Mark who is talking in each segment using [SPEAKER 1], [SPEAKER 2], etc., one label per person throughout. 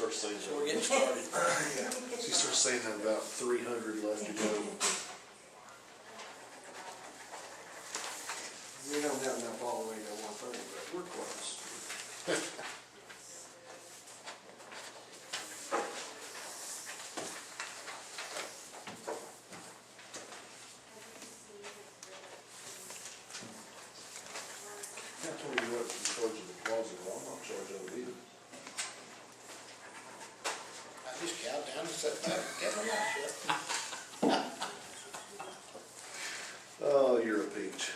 [SPEAKER 1] Uh, so we're getting started.
[SPEAKER 2] Yeah, she starts saying that about three hundred left to go.
[SPEAKER 3] We don't have enough all the way to one thirty, but we're close.
[SPEAKER 2] I told you what, you charge the deposit, well, I'm not charging it either.
[SPEAKER 4] I just cow down and sit back and get my mouth shut.
[SPEAKER 2] Oh, you're a peach.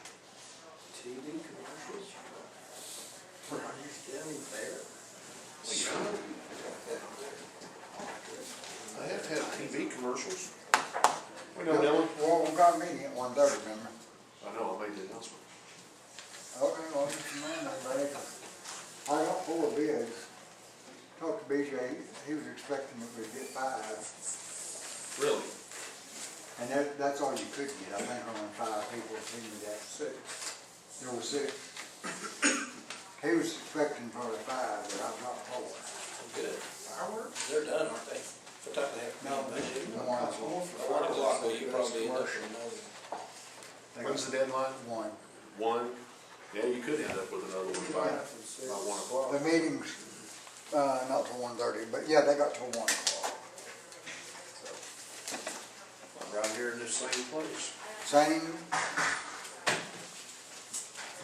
[SPEAKER 3] TV commercials? Rogers County Fair?
[SPEAKER 2] I have had TV commercials. We know Dylan.
[SPEAKER 4] Well, we got a meeting at one thirty, remember?
[SPEAKER 2] I know, I made the announcement.
[SPEAKER 4] Okay, well, you know, everybody.
[SPEAKER 3] I got four bids. Talked to BJ, he was expecting that we'd get five,
[SPEAKER 2] Really?
[SPEAKER 3] and that, that's all you could get, I think only five people came to that, six. There were six. He was expecting probably five, but I got four.
[SPEAKER 1] Good. Fireworks? They're done, aren't they? What time they have?
[SPEAKER 3] No,
[SPEAKER 1] they
[SPEAKER 3] One
[SPEAKER 1] By one o'clock, well, you probably end up with another.
[SPEAKER 2] When's the deadline?
[SPEAKER 3] One.
[SPEAKER 2] One. Yeah, you could end up with another one by, by one o'clock.
[SPEAKER 3] The meeting's, uh, not till one thirty, but yeah, they got till one o'clock.
[SPEAKER 2] Right here in this same place.
[SPEAKER 3] Same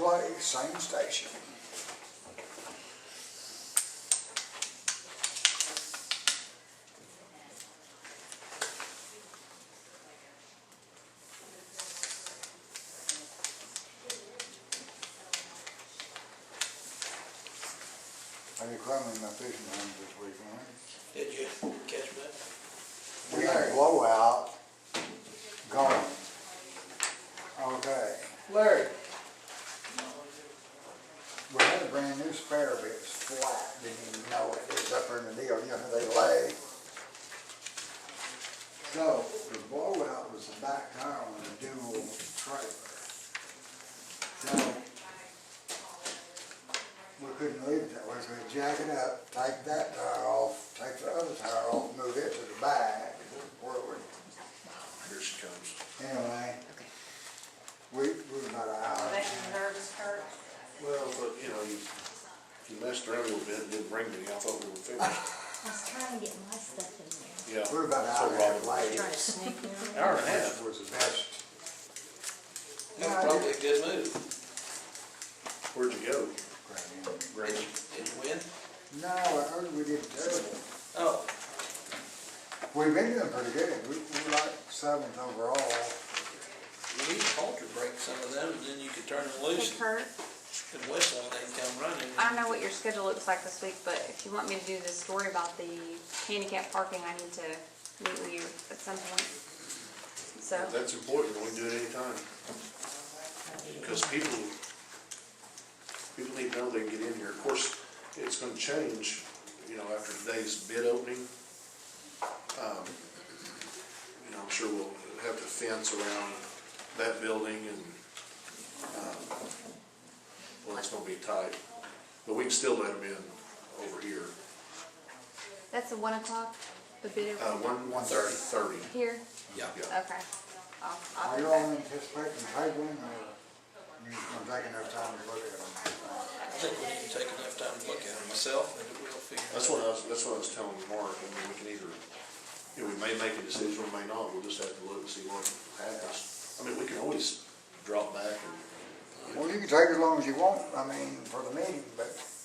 [SPEAKER 3] place, same station. I be climbing my fishing lines this weekend.
[SPEAKER 1] Did you catch that?
[SPEAKER 3] We had a blowout, gone. Okay.
[SPEAKER 4] Larry,
[SPEAKER 3] We had a brand new spare, but it's flat, didn't even know it, it was up in the deal, you know, how they lay. So, the blowout was the back tire on the dual trailer. So, we couldn't leave it that way, so we jack it up, take that tire off, take the other tire off, move it to the back, where it would
[SPEAKER 2] Here she comes.
[SPEAKER 3] Anyway, we, we were about an hour.
[SPEAKER 5] That nerves hurt.
[SPEAKER 2] Well, but, you know, you, you messed around a little bit, and didn't ring me, I thought we were finished.
[SPEAKER 5] I was trying to get my stuff in
[SPEAKER 2] Yeah.
[SPEAKER 3] We were about an hour and a half late.
[SPEAKER 5] there. Trying to sneak in.
[SPEAKER 2] Hour and a half.
[SPEAKER 3] Which was the best.
[SPEAKER 1] That's probably a good move.
[SPEAKER 2] Where'd you go?
[SPEAKER 1] Did you, did you win?
[SPEAKER 3] No, I heard we did terrible.
[SPEAKER 1] Oh,
[SPEAKER 3] We've been doing pretty good. We, we were like seventh overall.
[SPEAKER 1] you need to halter break some of them, and then you could turn them
[SPEAKER 5] Hey
[SPEAKER 1] loose
[SPEAKER 5] Kurt,
[SPEAKER 1] and whistle, and they'd come running.
[SPEAKER 5] I don't know what your schedule looks like this week, but if you want me to do this story about the handicap parking, I need to meet with you at some point. So,
[SPEAKER 2] That's important, we do it anytime. Because people, people need to know they can get in here. Of course, it's gonna change, you know, after today's bid opening. Um, You know, I'm sure we'll have to fence around that building and, um, well, it's gonna be tight. But we can still let them in over here,
[SPEAKER 5] that's the one o'clock, the bid
[SPEAKER 2] uh,
[SPEAKER 5] opening
[SPEAKER 2] one, one thirty, thirty.
[SPEAKER 5] here?
[SPEAKER 1] Yeah.
[SPEAKER 2] Yeah.
[SPEAKER 5] Okay. I'll, I'll
[SPEAKER 3] Are
[SPEAKER 5] do
[SPEAKER 3] you all
[SPEAKER 5] that.
[SPEAKER 3] anticipating tabling or you just gonna take enough time to look at them?
[SPEAKER 1] I think we can take enough time to look at them myself, and we'll figure.
[SPEAKER 2] That's what I was, that's what I was telling Mark, I mean, we can either, you know, we may make a decision, we may not, we'll just have to look and see what happens. I mean, we can always drop back and,
[SPEAKER 3] Well, you can take as long as you want, I mean, for the meeting, but